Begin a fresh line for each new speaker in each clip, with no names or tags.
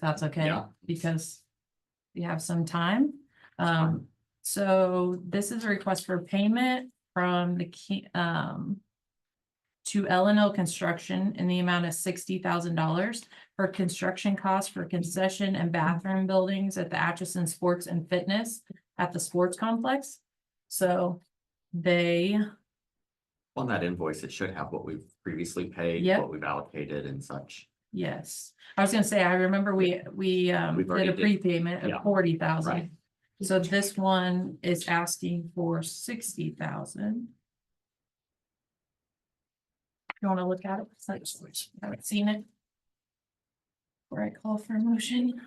that's okay,
Yeah.
because we have some time. Um, so this is a request for payment from the key, um, to L and L Construction in the amount of sixty thousand dollars for construction costs for concession and bathroom buildings at the Atchison Sports and Fitness at the sports complex. So they,
On that invoice, it should have what we've previously paid,
Yep.
what we've allocated and such.
yes, I was gonna say, I remember we, we, um,
We've
did
already
a
did-
prepayment
yeah.
of forty thousand.
Right.
So this one is asking for sixty thousand. You wanna look at it? It's like, I Haven't seen it. Where I call for a motion.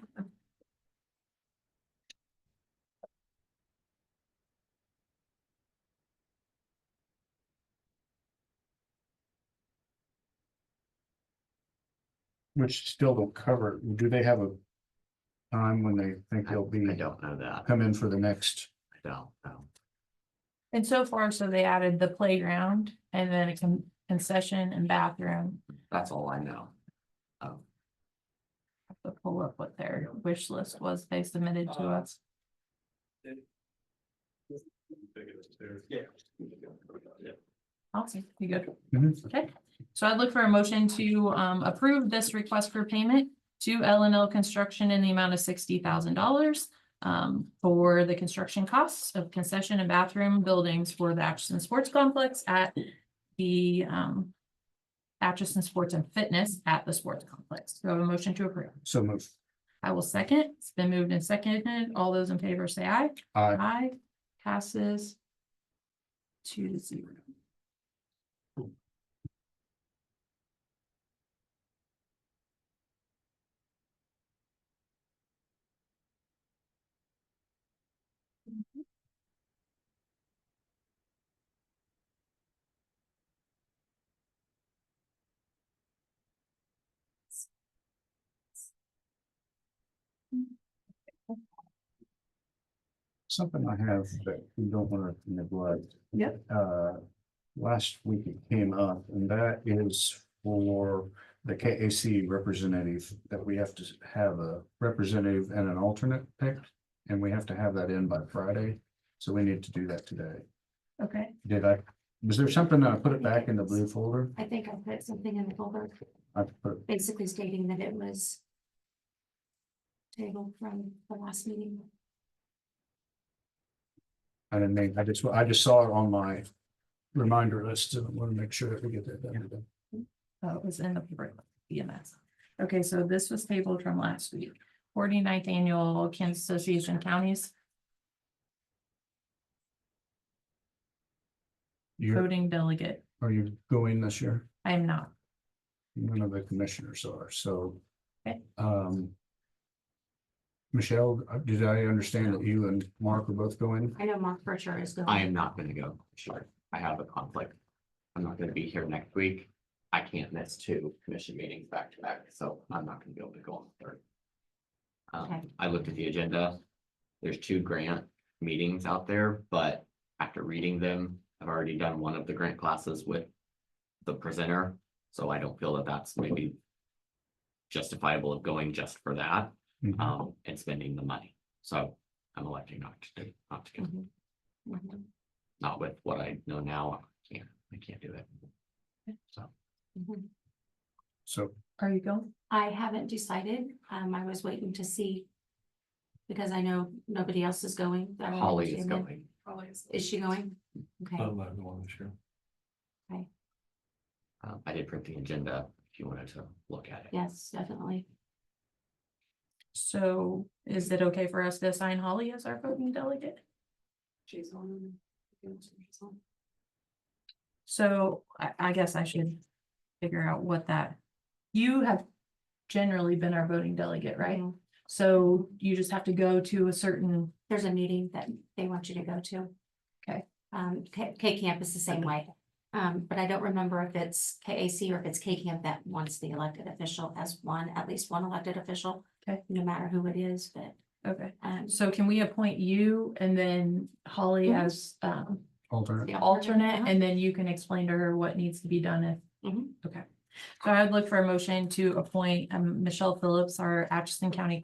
Which still don't cover, it. do they have a time when they think
I I
they'll be,
don't know that.
Mm-hmm. come in for the next?
I don't know.
And so far, so they added the playground and then a con- concession and bathroom.
That's all I know. Oh,
I have to Pull up what their wish list was they submitted to us.
Yeah.
Awesome, you good?
Mhm.
So I'd look for a motion to um approve this request for payment to L and L Construction in the amount of sixty thousand dollars. um, for the construction costs of concession and bathroom buildings for the Atchison Sports Complex at the um. Atchison Sports and Fitness at the sports complex. Do I have a motion to approve?
So move.
I will second. It's been moved and seconded. All those in favor say aye.
Aye.
Aye. Passes. Two to zero.
Something I have that we don't want to neglect.
Yep.
Uh, last week it came up and that is for the KAC representative that we have to have a representative and an alternate picked. And we have to have that in by Friday, so we need to do that today.
Okay,
Did I, was there something that I put it back in the blue folder?
I think I put something in the folder,
I put
basically stating that it was tabled from the last meeting.
I didn't make, I just, I just saw it on my reminder list, and I want to make sure that we get that done.
oh, it was in the paper, EMS. Okay, so this was tabled from last week, 49th annual Kansas Association Counties
You,
voting delegate.
are you going this year?
I am not.
None of the commissioners are, so.
Okay.
Um. Michelle, uh, did I understand that you and Mark are both going?
I know Mark Bercher is going.
I am not gonna go, sure. I have a conflict. I'm not gonna be here next week. I can't miss two commission meetings back to back, so I'm not gonna be able to go on the third.
Okay.
Um, I looked at the agenda. There's two grant meetings out there, but after reading them, I've already done one of the grant classes with the presenter, so I don't feel that that's maybe justifiable of going just for that,
Mhm.
um, and spending the money. So I'm electing not to, do- not to go
Mhm. Mhm.
not with what I know now, I can't, I can't do it. So,
Mhm.
So,
Are you going?
I haven't decided, um, I was waiting to see, because I know nobody else is going. I wanted
Holly
to
is
know-
going,
Is she going? Okay,
I'm not going this year.
um, I did print the agenda, if you wanted to look at it.
yes, definitely.
So is it okay for us to assign Holly as our voting delegate?
She's on.
So I, I guess I should figure out what that, you have generally been our voting delegate, right? So you just have to go to a certain,
There's a meeting that they want you to go to.
Okay.
Um, K, K camp is the same way, um, but I don't remember if it's KAC or if it's K camp that wants the elected official as one, at least one elected official.
Okay.
No matter who it is, but,
okay,
um.
so can we appoint you and then Holly
Mhm.
as um
alternate,
the
alternate, and then you can explain to her what needs to be done if.
Mhm.
Okay, So I would look for a motion to appoint um, Michelle Phillips, our Atchison County